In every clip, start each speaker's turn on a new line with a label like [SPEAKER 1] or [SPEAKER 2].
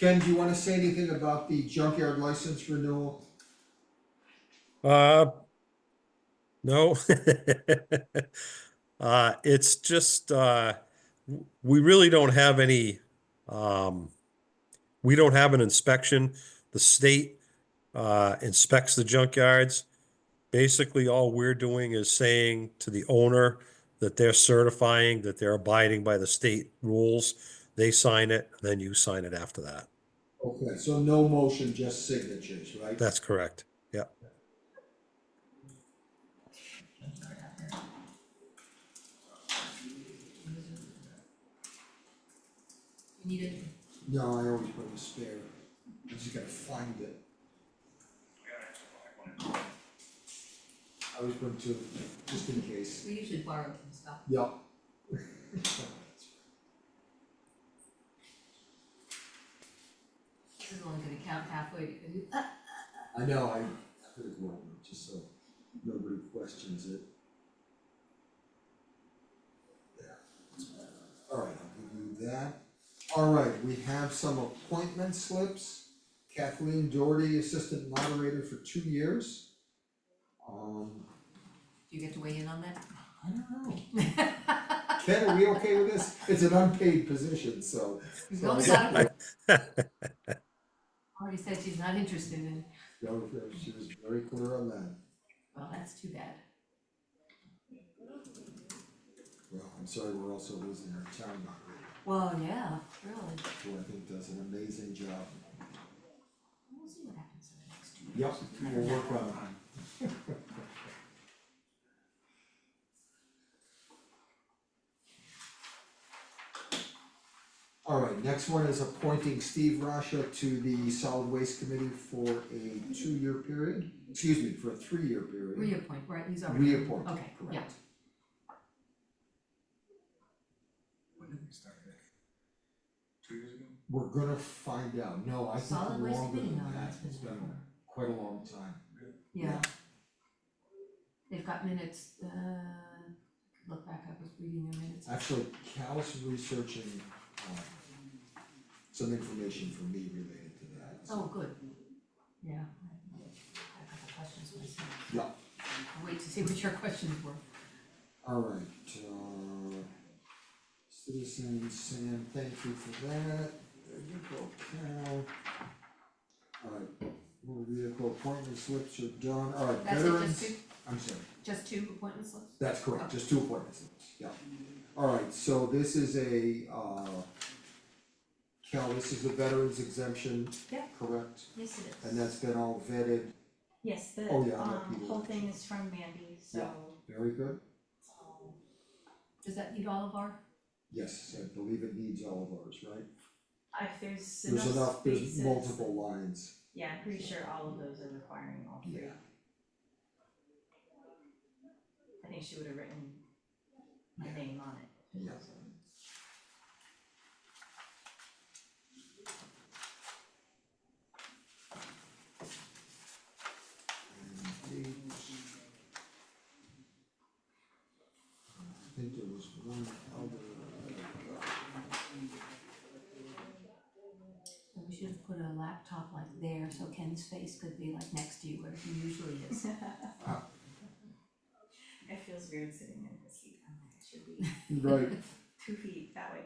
[SPEAKER 1] Ken, do you wanna say anything about the junkyard license renewal?
[SPEAKER 2] Uh, no. Uh, it's just, uh, w- we really don't have any, um, we don't have an inspection. The state, uh, inspects the junkyards. Basically, all we're doing is saying to the owner that they're certifying that they're abiding by the state rules. They sign it, then you sign it after that.
[SPEAKER 1] Okay, so no motion, just signatures, right?
[SPEAKER 2] That's correct.
[SPEAKER 3] You need
[SPEAKER 1] No, I always put a spare, I just gotta find it. I always bring two, just in
[SPEAKER 3] a,
[SPEAKER 1] case.
[SPEAKER 3] we usually borrow some stuff.
[SPEAKER 1] Yep.
[SPEAKER 3] This is only gonna count halfway to, uh,
[SPEAKER 1] I know, I, I could have warned them, just so nobody questions it. There, that's better. Alright, I'll give you that. Alright, we have some appointment slips. Kathleen Doherty, Assistant Moderator for two years. Um,
[SPEAKER 3] do you get to weigh in on that?
[SPEAKER 1] I don't know. Ken, are we okay with this? It's an unpaid position, so.
[SPEAKER 3] As long as I don't- Already said she's not interested in,
[SPEAKER 1] No, she was very clear on that.
[SPEAKER 3] well, that's too bad.
[SPEAKER 1] Well, I'm sorry, we're also losing our town moderator.
[SPEAKER 3] Well, yeah, really.
[SPEAKER 1] who I think does an amazing job.
[SPEAKER 3] We'll see what happens in the next two years.
[SPEAKER 1] Yep, we'll work on it. Alright, next one is appointing Steve Rasha to the solid waste committee for a two-year period, excuse me, for a three-year period.
[SPEAKER 3] Reappoint, right, he's already.
[SPEAKER 1] Reappoint,
[SPEAKER 3] Okay, yeah,
[SPEAKER 1] correct.
[SPEAKER 4] When did we start that? Two years ago?
[SPEAKER 1] We're gonna find out, no, I think
[SPEAKER 3] Solid
[SPEAKER 1] longer than that,
[SPEAKER 3] waste committee, no, that's
[SPEAKER 1] it's
[SPEAKER 3] been
[SPEAKER 1] been
[SPEAKER 3] forever.
[SPEAKER 1] quite a long time.
[SPEAKER 3] yeah. They've got minutes, uh, look back, I was reading their minutes.
[SPEAKER 1] Actually, Cal's researching um some information for me related to that. so-
[SPEAKER 3] Oh, good, yeah. I have a couple questions myself.
[SPEAKER 1] Yeah,
[SPEAKER 3] I'll wait to see what your questions were.
[SPEAKER 1] alright, uh citizen Sam, thank you for that, there you go, Cal. Alright, motor vehicle appointment slips are done, alright,
[SPEAKER 3] That's it,
[SPEAKER 1] veterans,
[SPEAKER 3] just two,
[SPEAKER 1] I'm sorry,
[SPEAKER 3] just two appointment slips?
[SPEAKER 1] that's correct, just two appointment slips, yeah. Alright, so this is a uh Cal, this is the veterans exemption,
[SPEAKER 5] Yeah.
[SPEAKER 1] correct?
[SPEAKER 5] Yes, it is.
[SPEAKER 1] And that's been all vetted,
[SPEAKER 5] Yes, the
[SPEAKER 1] Oh, yeah, I know
[SPEAKER 5] um
[SPEAKER 1] people.
[SPEAKER 5] whole thing is from Mandy, so
[SPEAKER 1] Yeah. very good?
[SPEAKER 5] um,
[SPEAKER 3] Does that need all of our,
[SPEAKER 1] Yes, I believe it needs all of ours, right?
[SPEAKER 5] I there's enough
[SPEAKER 1] There's enough, there's
[SPEAKER 5] spaces-
[SPEAKER 1] multiple lines.
[SPEAKER 5] Yeah, I'm pretty sure all of those are requiring all three.
[SPEAKER 1] Yeah.
[SPEAKER 5] I think she would have written my name on it.
[SPEAKER 1] Yeah.
[SPEAKER 5] so.
[SPEAKER 1] And eight. I think there was one other.
[SPEAKER 3] so we should have put a laptop like there, so Ken's face could be like next to you where he usually is.
[SPEAKER 5] It feels weird sitting in this seat, I'm like, I should be
[SPEAKER 1] Right,
[SPEAKER 5] two feet that way.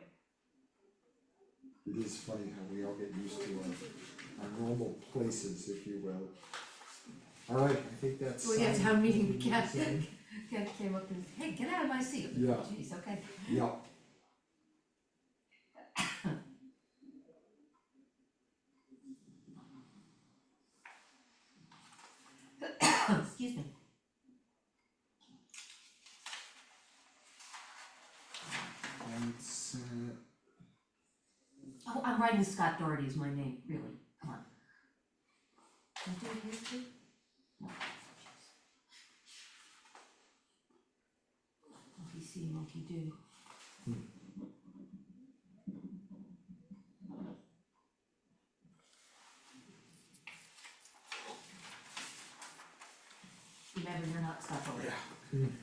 [SPEAKER 1] it is funny how we all get used to our, our normal places, if you will. Alright, I think that's.
[SPEAKER 3] Well, yeah,
[SPEAKER 1] signed.
[SPEAKER 3] town meeting, Ken,
[SPEAKER 1] Signed.
[SPEAKER 3] Ken came up and, hey, get out of my seat.
[SPEAKER 1] Yeah.
[SPEAKER 3] Jeez, okay.
[SPEAKER 1] Yeah.
[SPEAKER 3] Excuse me.
[SPEAKER 1] That's it.
[SPEAKER 3] Oh, I'm writing Scott Doherty is my name, really, come on. Can I do it here too? No. Monkey see, monkey do. Remember, you're not Scott Doherty.
[SPEAKER 1] Hmm.